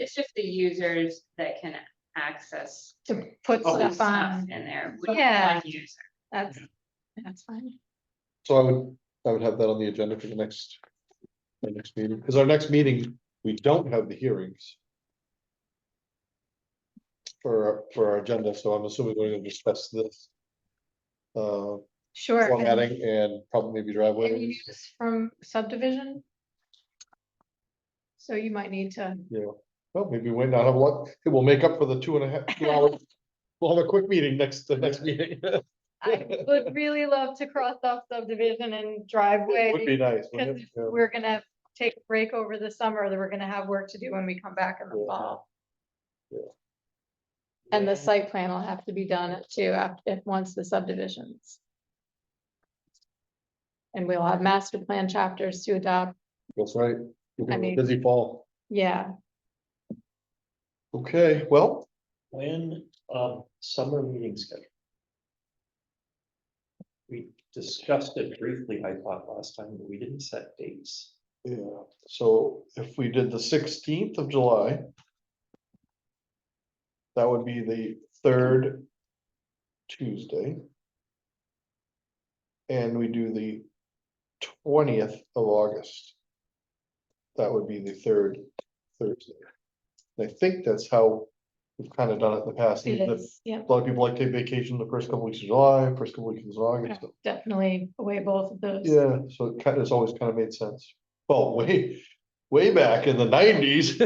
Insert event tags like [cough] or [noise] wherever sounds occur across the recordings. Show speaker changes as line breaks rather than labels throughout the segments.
it's just the users that can access
to put
Oh,
some
stuff
stuff
on,
in there.
So-
with
Yeah.
one user.
that's, that's fine.
So I would, I would have that on the agenda for the next. The next meeting, because our next meeting, we don't have the hearings. For, for our agenda, so I'm assuming we're gonna discuss this. Uh,
Sure. and-
formatting and probably maybe
and you
driveways.
knew this From subdivision? So you might need to,
Well, maybe we not have what, it will make up for the two and a half, two hours.
[laughs]
We'll have a quick meeting next, the next meeting. [laughs]
I would really love to cross off subdivision and driveway.
Would be nice. wouldn't
Cause
it? Yeah.
we're gonna take a break over the summer, that we're gonna have work to do when we come back in the
Yeah.
fall.
Yeah.
And the site plan will have to be done at too, after, if, once the subdivisions. And we'll have master plan chapters to adopt,
That's right.
I mean-
Busy fall.
yeah,
Okay, well,
When, um, summer meeting schedule? We discussed it briefly, I thought, last time, but we didn't set dates.
Yeah, so if we did the sixteenth of July. That would be the third Tuesday. And we do the twentieth of August. That would be the third Thursday. And I think that's how we've kind of done it in the past.
it
even if
is, yeah,
A lot of people like take vacation the first couple weeks of July, first couple weeks of August.
definitely away both of those.
Yeah, so it kind of, it's always kind of made sense. Well, [laughs] way, way back in the nineties,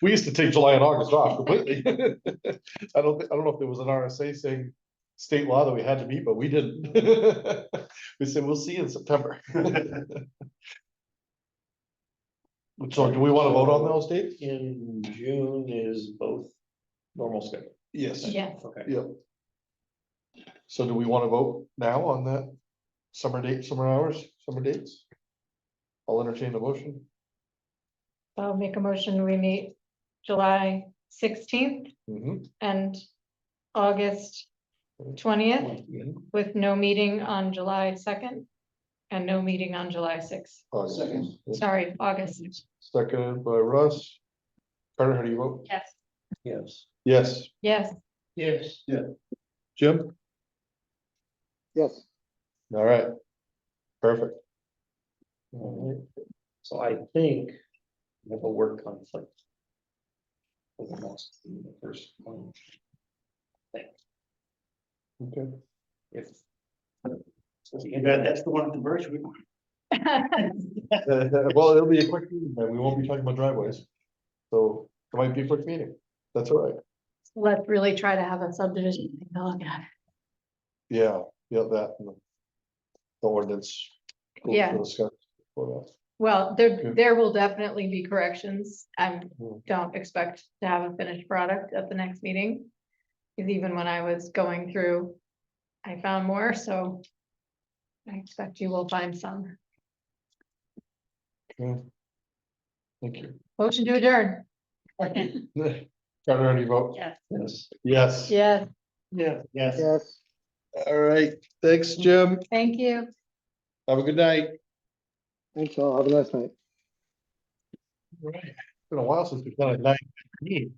[laughs] we used to take July and August off completely. [laughs] I don't, thi- I don't know if there was an RSA saying state law that we had to meet, but we didn't. [laughs] We said, we'll see you in September. [laughs] So do we want to vote on those dates?
In June is both normal schedule.
Yes.
Yeah,
Okay.
Yep. So do we want to vote now on that summer date, summer hours, summer dates? I'll entertain the motion.
I'll make a motion, we meet July sixteenth
Mhm.
and August twentieth. with no meeting on July second and no meeting on July sixth.
August.
Second.
Sorond, August.
Seconded by Russ. Carter, how do you vote?
Yes,
Yes.
Yes.
Yes, [laughs]
Yes.
Jim?
Yes,
All right. Perfect.
So I think we have a work conflict. For the next, the first one.
Okay. [laughs]
If. Yeah, that's the one at the merge.
Uh, Well, it'll be a quick meeting, then. We won't be talking about driveways. So it might be a quick meeting. That's all right.
let's really try to have a subdivision. thing to look at.
Yeah, yeah, that. and the- The ordinance. We'll
Yeah.
discuss before that.
Well, there,
Good.
there will definitely be corrections. I
Hmm.
don't expect to have a finished product at the next meeting. Because even when I was going through, I found more, so I expect you will find some.
Okay. Thank you. [laughs]
Motion to adjourn.
Carter, how do you vote?
yes.
Yes.
Yes.
Yes,
Yeah. Yes.
yes.
All right. Thanks, Jim.
thank you.
Have a good night.
Thanks all. Have a nice night.
[laughs]
Right. It's Been a while since we've done a night. meeting.